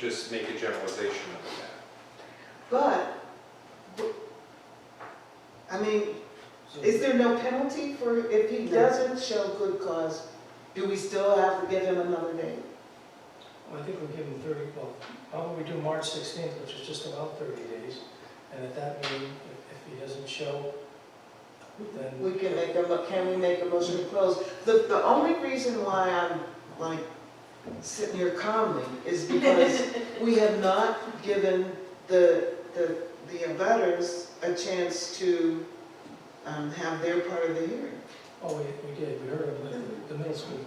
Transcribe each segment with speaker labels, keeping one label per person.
Speaker 1: just make a generalization of that.
Speaker 2: But, w- I mean, is there no penalty for, if he doesn't show good cause, do we still have to give him another day?
Speaker 3: Well, I think we're giving 30, well, how about we do March 16th, which is just about 30 days, and at that meeting, if- if he doesn't show, then...
Speaker 2: We can make a, mo- can we make a motion to close? The, the only reason why I'm like sitting here calmly is because we have not given the, the, the abutters a chance to, um, have their part of the hearing.
Speaker 3: Oh, we we did, we heard of the- the middle school.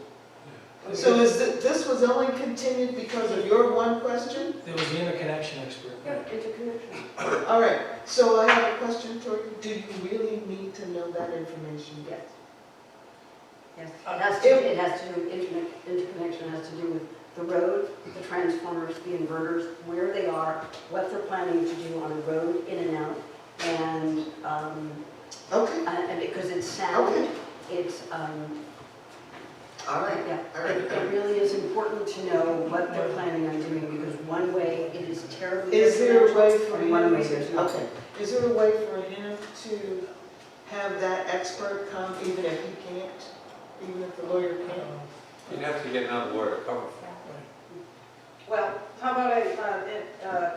Speaker 2: So is, thi- this was only continued because of your one question?
Speaker 3: There was the interconnection expert.
Speaker 4: Yeah, interconnection.
Speaker 2: All right, so I have a question for you. Do you really need to know that information?
Speaker 4: Yes. Yes, it has to,
Speaker 2: If-
Speaker 4: it has to, do- interconnect- interconnection has to do with the road, the transformers, the inverters, where they are, what they're planning to do on a road in and out, and, um,
Speaker 2: Okay,
Speaker 4: uh, and because it's sound,
Speaker 2: Okay.
Speaker 4: it's, um,
Speaker 2: all right,
Speaker 4: yeah.
Speaker 2: all
Speaker 4: It
Speaker 2: right.
Speaker 4: it really is important to know what they're planning on doing, because one way it is terribly.
Speaker 2: Is there a way for
Speaker 4: detrimental, and One way
Speaker 2: him
Speaker 4: there's
Speaker 2: to,
Speaker 4: not.
Speaker 2: okay, is there a way for him to have that expert come even if he can't? Even if the lawyer can't?
Speaker 3: Um,
Speaker 1: You'd have to get another lawyer to cover for it.
Speaker 5: Well, how about I, uh, it, uh,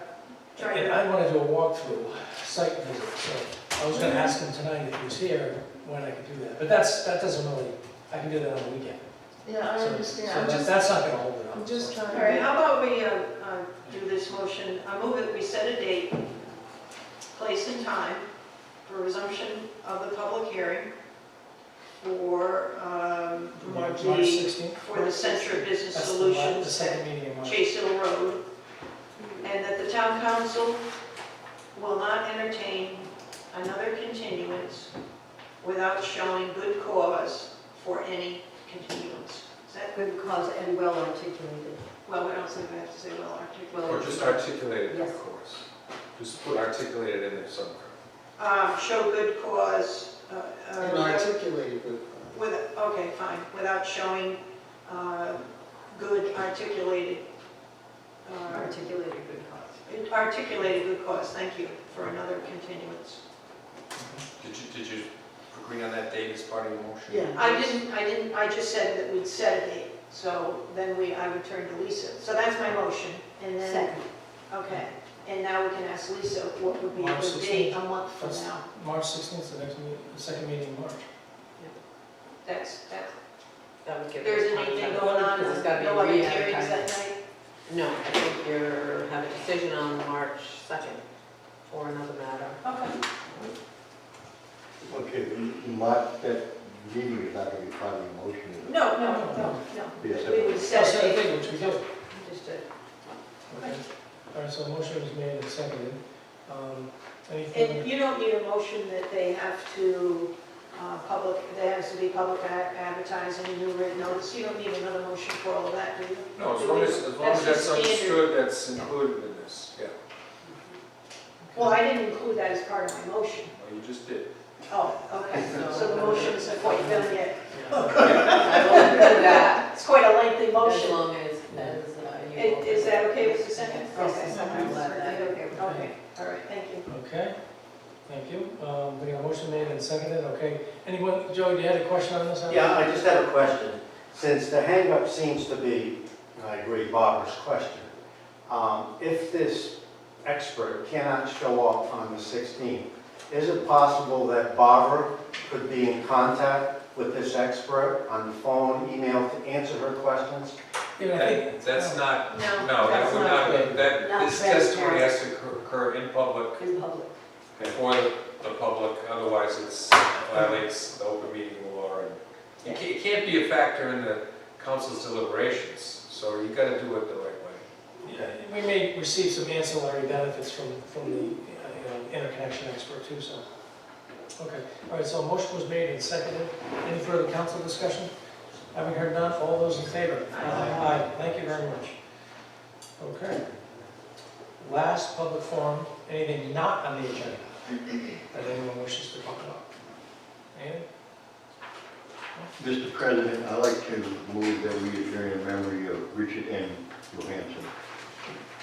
Speaker 5: try
Speaker 3: And
Speaker 5: to,
Speaker 3: I want to do a walkthrough, site visit, so I was going to ask him tonight if he was here, when I could do that. But that's, that doesn't really, I can do that on the weekend.
Speaker 2: Yeah, I
Speaker 3: So-
Speaker 2: understand.
Speaker 3: So
Speaker 2: I'm
Speaker 3: that's,
Speaker 2: just,
Speaker 3: that's not going to hold it up.
Speaker 2: I'm just trying
Speaker 5: all right,
Speaker 2: to.
Speaker 5: how about we, uh, uh, do this motion, I move that we set a date, place and time for resumption of the public hearing for, um,
Speaker 3: March
Speaker 5: the,
Speaker 3: 16th?
Speaker 5: for the Center of Business
Speaker 3: That's the la- the
Speaker 5: Solutions at
Speaker 3: second meeting in March.
Speaker 5: Chase Hill Road, and that the town council will not entertain another continuance without showing good cause for any continuance. Is that
Speaker 4: Good cause and well articulated.
Speaker 5: Well, we don't say we have to say well
Speaker 1: Or
Speaker 5: articulated.
Speaker 1: just articulate it, of
Speaker 4: Yes.
Speaker 1: course. Just put articulate it in there somewhere.
Speaker 5: Um, show good cause, uh,
Speaker 2: And
Speaker 5: uh,
Speaker 2: articulated with.
Speaker 5: with, okay, fine, without showing, uh, good articulated, uh,
Speaker 4: Articulated good cause.
Speaker 5: articulated good cause, thank you, for another continuance.
Speaker 1: Did you, did you agree on that date as part of your motion?
Speaker 2: Yeah.
Speaker 5: I didn't, I didn't, I just said that we'd set a date, so then we, I would turn to Lisa. So that's my motion, and then,
Speaker 4: Second.
Speaker 5: okay, and now we can ask Lisa what would be a
Speaker 3: March
Speaker 5: good date
Speaker 3: 16th.
Speaker 5: a month from
Speaker 3: That's-
Speaker 5: now.
Speaker 3: March 16th, 's the next meeting, the second meeting in March.
Speaker 5: That's, that's
Speaker 6: That would give us
Speaker 5: There's
Speaker 6: time
Speaker 5: anything
Speaker 6: to-
Speaker 5: going on,
Speaker 6: Because it's gotta be
Speaker 5: no other
Speaker 6: re advertised.
Speaker 5: hearings that night?
Speaker 6: No, I think you're, have a decision on March 2nd for another matter.
Speaker 5: Okay.
Speaker 7: Okay, Mark, that meeting is not going to be part of the motion. is it?
Speaker 5: No, no, no, no.
Speaker 7: Be a
Speaker 5: We
Speaker 7: separate-
Speaker 5: would
Speaker 3: So,
Speaker 5: set
Speaker 3: so I
Speaker 5: a date.
Speaker 3: think, which we did.
Speaker 6: You Just uh, did.
Speaker 3: Okay. All right, so a motion was made and seconded. Um, Anything,
Speaker 5: And you don't need a motion that they have to, uh, public, there has to be public ad- advertising, new written notice. You don't need another motion for all of that, do you?
Speaker 1: No, as long as, as long as
Speaker 5: That's
Speaker 1: that's
Speaker 5: just
Speaker 1: understood, that's included in this, yeah.
Speaker 5: Well, I didn't include that as part of my motion.
Speaker 1: Well, you just did.
Speaker 5: Oh, okay, so the motion isn't quite done yet. Oh,
Speaker 6: I will do that,
Speaker 5: It's quite a lengthy
Speaker 6: as
Speaker 5: motion.
Speaker 6: long as, as uh, you.
Speaker 5: Is is that okay with the second?
Speaker 6: Yes,
Speaker 5: Okay,
Speaker 6: yes,
Speaker 5: I'm
Speaker 6: I'm glad that-
Speaker 5: certainly okay. Okay, all right, thank you.
Speaker 3: okay, thank you. Um, We got a motion made and seconded, okay. Anyone, Joey, do you have a question on this?
Speaker 8: Yeah, I just have a question. Since the hangup seems to be, and I agree Barbara's question, um, if this expert cannot show up on the 16th, is it possible that Barbara could be in contact with this expert on the phone, email to answer her questions?
Speaker 3: Yeah, I think-
Speaker 1: That- That's not, no,
Speaker 5: No,
Speaker 1: that
Speaker 5: that's
Speaker 1: would
Speaker 5: not
Speaker 1: not, that,
Speaker 4: Not
Speaker 1: this testimony
Speaker 4: transparent.
Speaker 1: has to occur- occur in public,
Speaker 4: In public.
Speaker 1: before the the public, otherwise it's violates the open meeting law. and It ca- it can't be a factor in the council's deliberations, so you gotta do it the right way.
Speaker 3: yeah, We may receive some ancillary benefits from, from the uh, you know, interconnection expert too, so. Okay, all right, so a motion was made and seconded. Any further council discussion? Having heard none, all those in favor?
Speaker 5: Aye.
Speaker 3: Aye, thank you very much. Okay. Last public forum, anything not on the agenda that anyone wishes to talk about? Anything?
Speaker 7: Mr. President, I'd like to move that we adjourn in memory of Richard M. Johansson.